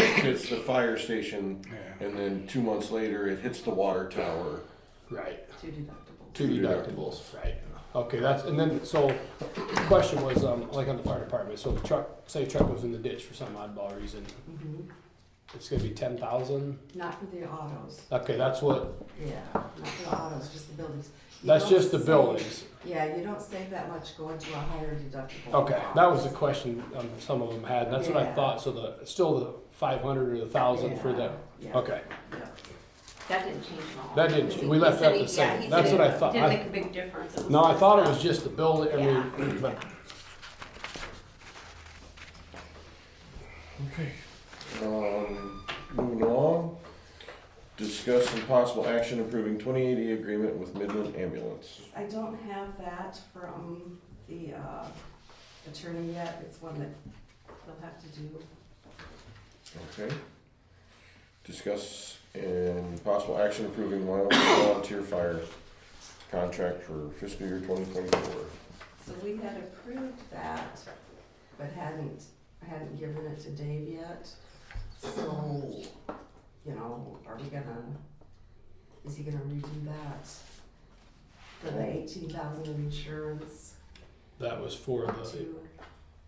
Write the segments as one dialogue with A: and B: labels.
A: hits the fire station, and then two months later, it hits the water tower.
B: Right.
C: Two deductibles.
B: Two deductibles. Right. Okay, that's, and then, so, question was, um, like on the fire department, so the truck, say a truck goes in the ditch for some oddball reason,
D: Mm-hmm.
C: Mhm.
B: it's gonna be ten thousand?
C: Not for the autos,
B: Okay, that's what,
C: yeah, not for the autos, just the buildings. You
B: that's
C: don't
B: just the
C: save-
B: buildings.
C: Yeah, you don't save that much going to a higher deductible.
B: Okay, that was the question, um, some of them had, that's what I
C: Yeah.
B: thought, so the, still the five hundred or the thousand for the,
C: Yeah, yeah,
B: okay.
C: yeah.
E: That didn't change at all.
B: That didn't- we left
E: He said
B: that
E: he-
B: the
E: yeah,
B: same.
E: he
B: That's
E: said
B: what
E: it
B: I thought.
E: Didn't
B: I-
E: make a big difference. It was
B: No, I
E: just
B: thought it
E: the-
B: was just the building, I mean, but,
A: Okay. Um, moving along. Discuss some possible action approving 2080 agreement with Midland Ambulance.
C: I don't have that from the uh, attorney yet, it's one that he'll have to do.
A: Okay. Discuss and possible action approving Wyoming volunteer fire contract for fiscal year 2024.
C: So we had approved that, but hadn't, hadn't given it to Dave yet. So, you know, are we gonna, is he gonna redo that? For the eighteen thousand insurance
B: that was for the,
C: to,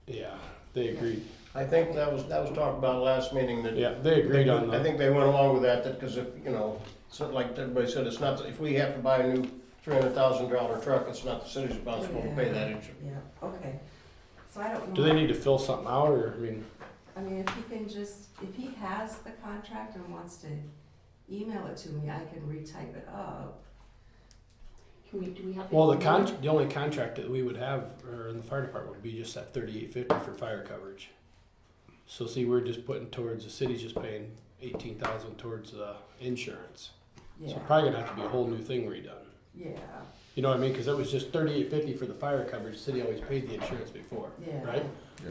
B: yeah, they agreed,
D: I think that was, that was talked about last meeting, that.
B: yeah, they agreed on
D: I
B: the,
D: think they went along with that, that, cause if, you know, so like everybody said, it's not, if we have to buy a new three hundred thousand dollar truck, it's not the city's responsible to pay that insurance.
C: yeah, okay. So I don't know.
B: do they need to fill something out, or, I mean,
C: I mean, if he can just, if he has the contract and wants to email it to me, I can retype it up.
E: Can we, do we have?
B: well, the
E: email?
B: con, the only contract that we would have, or in the fire department, would be just that thirty-eight fifty for fire coverage. So see, we're just putting towards, the city's just paying eighteen thousand towards the insurance, so
C: Yeah,
B: probably gonna have to be a whole new thing redone.
C: yeah,
B: You know what I mean? Because it was just thirty-eight fifty for the fire coverage. The city always paid the insurance before,
C: yeah.
B: right?
C: Yeah,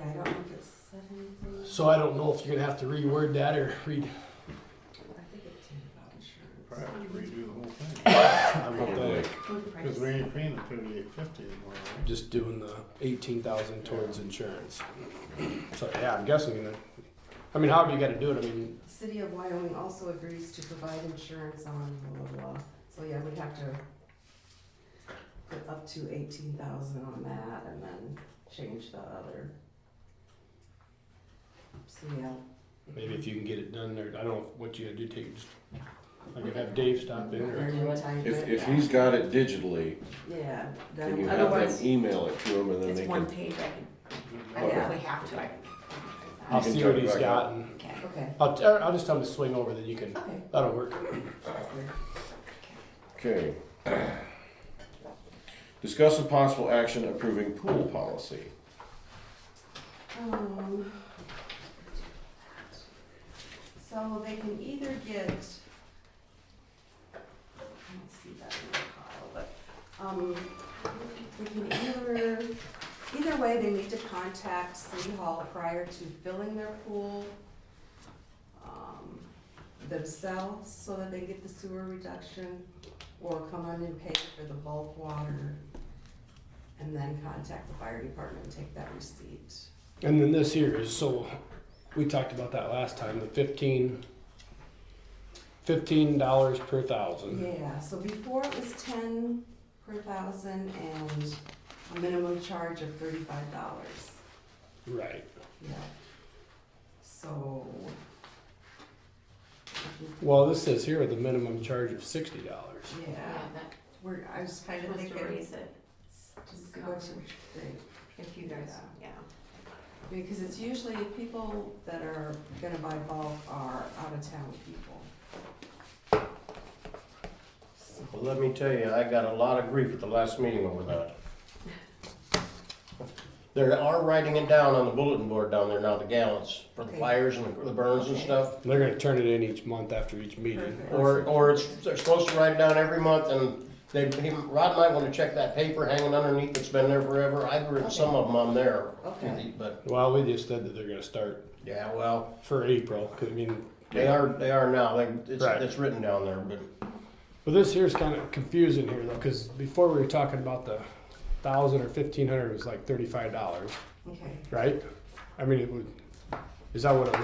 C: I don't know if it said anything.
B: So I don't know if you're gonna have to reword that or read.
C: I think it did about insurance.
F: Probably have to redo the whole thing,
B: I would think
E: Food price.
F: because we ain't paying the thirty-eight fifty anymore, right?
B: just doing the eighteen thousand towards insurance. So yeah, I'm guessing. That, I mean, however you got to do it. I mean,
C: City of Wyoming also agrees to provide insurance on blah, blah, blah. So yeah, we'd have to put up to eighteen thousand on that and then change the other. So yeah.
B: maybe if you can get it done there, I don't know what you got to do. Take just I could have Dave stop in or
C: Or you type
A: If,
C: it,
A: if
C: yeah.
A: he's got it digitally,
C: Yeah,
A: can you
C: then
A: have them
C: otherwise,
A: email it to him and then they
E: It's
A: can
E: one page, I can, uh, I
C: Okay.
E: if we have to, I can.
B: I'll
A: You can
B: see
A: cut
B: what
A: it
B: he's
A: back
B: got.
A: out.
B: And
E: Okay.
C: okay,
B: I'll, t- I'll just tell him to swing over. Then you can.
C: okay.
B: That'll work.
C: that's good.
A: Okay. Discuss a possible action approving pool policy.
C: Um, So they can either get, I don't see that in the pile, but, um, they can either, either way, they need to contact City Hall prior to filling their pool um, themselves, so that they get the sewer reduction, or come on and pay for the bulk water, and then contact the fire department and take that receipt.
B: And then this here is so we talked about that last time, the fifteen fifteen dollars per thousand.
C: Yeah, so before it was ten per thousand and a minimum charge of thirty-five dollars.
B: Right.
C: Yeah. So.
B: Well this says here the minimum charge of sixty dollars.
C: Yeah,
E: Yeah, that-
C: we're, I was kind of
E: supposed to
C: thinking,
E: raise it
C: just go to, think,
E: if you guys, yeah.
C: because it's usually people that are gonna buy bulk are out of town people. So,
D: Well, let me tell you, I got a lot of grief at the last meeting over that. They are writing it down on the bulletin board down there now, the gallons, for the fires and the burns and stuff.
B: They're gonna turn it in each month after each meeting.
C: perfect.
D: Or, or it's, they're supposed to write it down every month, and they, he- Rod might wanna check that paper hanging underneath that's been there forever, I've written some of them on there.
C: Okay.
D: But,
B: Well, we just said that they're gonna start
D: yeah, well,
B: for April, 'cause, I mean,
D: they are, they are now, they, it's,
B: Right.
D: it's written down there, but.
B: but this here's kind of confusing here though, because before we were talking about the thousand or fifteen hundred was like thirty-five dollars,
C: Okay.
B: right? I mean, it would, is that what it was?